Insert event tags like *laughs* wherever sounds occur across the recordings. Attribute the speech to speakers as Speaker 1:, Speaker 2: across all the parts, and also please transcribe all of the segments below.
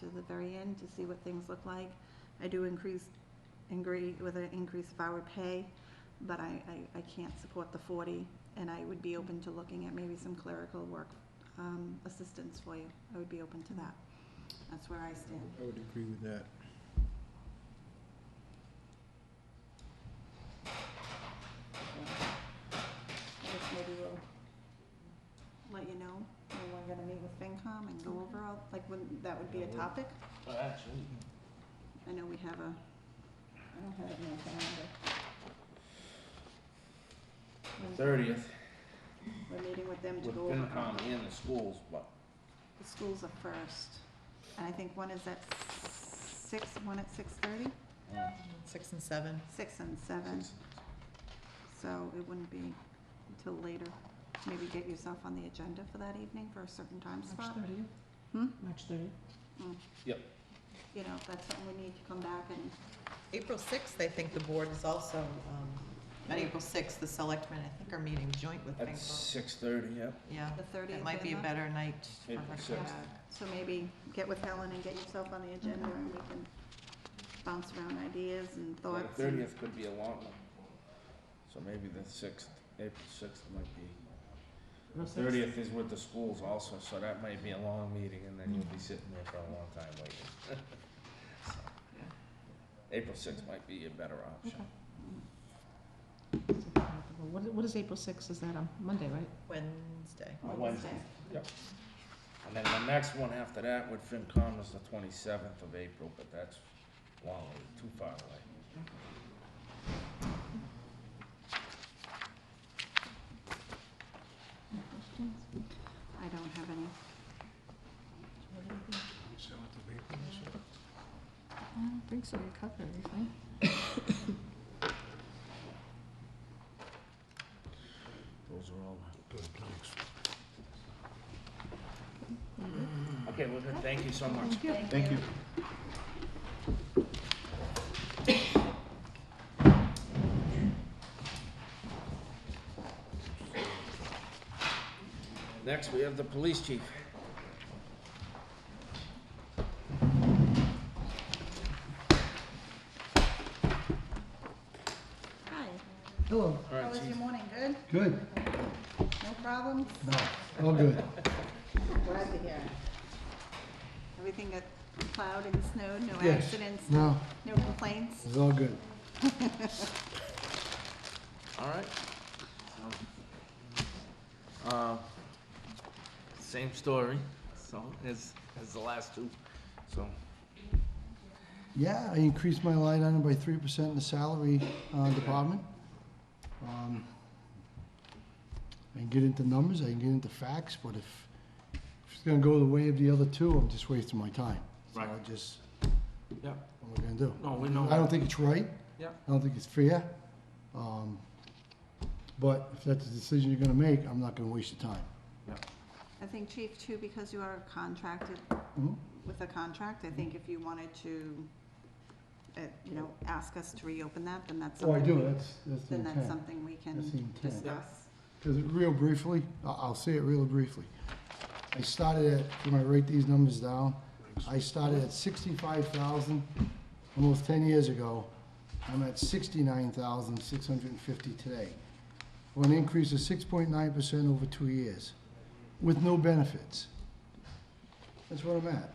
Speaker 1: to the very end to see what things look like. I do increase, agree with an increase of our pay, but I, I, I can't support the forty, and I would be open to looking at maybe some clerical work, um, assistance for you. I would be open to that. That's where I stand.
Speaker 2: I would agree with that.
Speaker 1: I guess maybe we'll let you know when we're gonna meet with FinCom and go over all, like, when, that would be a topic.
Speaker 3: Actually,
Speaker 1: I know we have a, I don't have it in my calendar. When-
Speaker 3: thirtieth
Speaker 1: We're meeting with them to
Speaker 3: with
Speaker 1: go over.
Speaker 3: FinCom and the schools, but
Speaker 1: The schools are first, and I think one is at six, one at six thirty,
Speaker 3: um,
Speaker 4: Six and seven.
Speaker 1: six and seven,
Speaker 3: since-
Speaker 1: so it wouldn't be until later. Maybe get yourself on the agenda for that evening for a certain time
Speaker 5: March
Speaker 1: slot.
Speaker 5: thirtieth?
Speaker 1: Hmm?
Speaker 5: March thirtieth?
Speaker 1: Mm.
Speaker 3: Yep.
Speaker 1: You know, that's something we need to come back and,
Speaker 4: April sixth, I think the board is also, um, on April sixth, the selectmen, I think, are meeting joint with
Speaker 3: at
Speaker 4: FinCom.
Speaker 3: six thirty, yep.
Speaker 4: Yeah,
Speaker 1: the thirtieth.
Speaker 4: it might be a better night for her
Speaker 3: April
Speaker 4: to come
Speaker 3: 6th.
Speaker 4: back.
Speaker 1: So maybe get with Helen and get yourself on the agenda and we can bounce around ideas and
Speaker 3: The
Speaker 1: thoughts. and-
Speaker 3: thirtieth could be a long one. So maybe the sixth, April sixth might be. Thirtieth is with the schools also, so that might be a long meeting and then you'll be sitting there for a long time waiting. *laughs* So, April sixth might be a better option.
Speaker 5: What, what is April sixth? Is that on Monday, right?
Speaker 4: Wednesday.
Speaker 3: On Wednesday. Yep. And then the next one after that with FinCom is the twenty-seventh of April, but that's long, way- too far away.
Speaker 1: I don't have any.
Speaker 5: I don't think so, you covered everything.
Speaker 3: Those are all.
Speaker 5: You
Speaker 3: Okay, well, good. thank you so much.
Speaker 5: good?
Speaker 2: Thank
Speaker 5: Thank you.
Speaker 2: you.
Speaker 3: Next, we have the police chief.
Speaker 1: Hi,
Speaker 6: Hello.
Speaker 3: All
Speaker 1: how
Speaker 3: right,
Speaker 1: was your
Speaker 3: chief.
Speaker 1: morning? Good?
Speaker 6: Good.
Speaker 1: No problems?
Speaker 6: No, all good.
Speaker 1: Glad to hear. Everything got plowed and snowed, no
Speaker 6: Yes.
Speaker 1: accidents,
Speaker 6: No,
Speaker 1: no complaints?
Speaker 6: it's all good.
Speaker 3: All right. So, uh, Same story, so, as, as the last two, so,
Speaker 6: Yeah, I increased my line item by three percent in the salary uh, department. Um, I can get into numbers, I can get into facts, but if, if it's gonna go the way of the other two, I'm just wasting my time. So I
Speaker 3: Right.
Speaker 6: just,
Speaker 3: yeah,
Speaker 6: what am I gonna do?
Speaker 3: no, we know.
Speaker 6: I don't think it's right.
Speaker 3: Yeah.
Speaker 6: I don't think it's fair. Um, But if that's the decision you're gonna make, I'm not gonna waste your time.
Speaker 1: I think chief too, because you are contracted
Speaker 6: Mhm.
Speaker 1: with a contract, I think if you wanted to, uh, you know, ask us to reopen that, then that's
Speaker 6: Oh, I
Speaker 1: something.
Speaker 6: do,
Speaker 1: we-
Speaker 6: that's, that's the
Speaker 1: Then
Speaker 6: intent.
Speaker 1: that's something we
Speaker 6: That's the
Speaker 1: can
Speaker 6: intent.
Speaker 1: discuss.
Speaker 6: Because real briefly, I- I'll say it real briefly. I started at, when I write these numbers down, I started at sixty-five thousand almost ten years ago. I'm at sixty-nine thousand six hundred and fifty today. For an increase of six point nine percent over two years, with no benefits. That's where I'm at.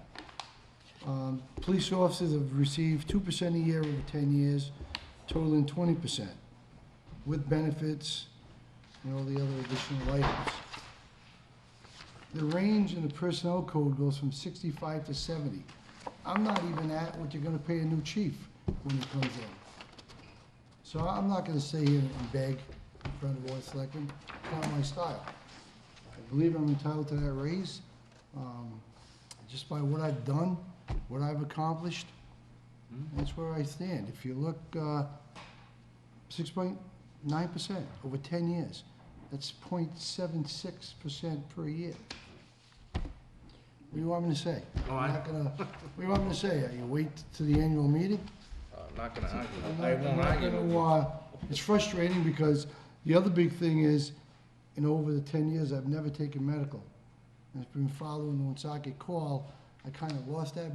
Speaker 6: Um, police officers have received two percent a year over ten years, totaling twenty percent, with benefits, and all the other additional items. The range in the personnel code goes from sixty-five to seventy. I'm not even at what you're gonna pay a new chief when he comes in. So I'm not gonna sit here and beg in front of the board of selectmen, it's not my style. I believe I'm entitled to that raise, um, just by what I've done, what I've accomplished. That's where I stand. If you look, uh, six point nine percent over ten years. That's 0.76 percent per year. What do you want me to say?
Speaker 3: No,
Speaker 6: I'm
Speaker 3: I-
Speaker 6: not gonna, what do you want me to say? Uh, You wait to the annual meeting?
Speaker 3: I'm not gonna
Speaker 6: I'm
Speaker 3: argue,
Speaker 6: not-
Speaker 3: I
Speaker 6: I'm
Speaker 3: won't
Speaker 6: not
Speaker 3: argue.
Speaker 6: gonna,
Speaker 3: with you.
Speaker 6: uh, It's frustrating because the other big thing is, in over the ten years, I've never taken medical. And it's been following the Woonsocket call. I kinda lost that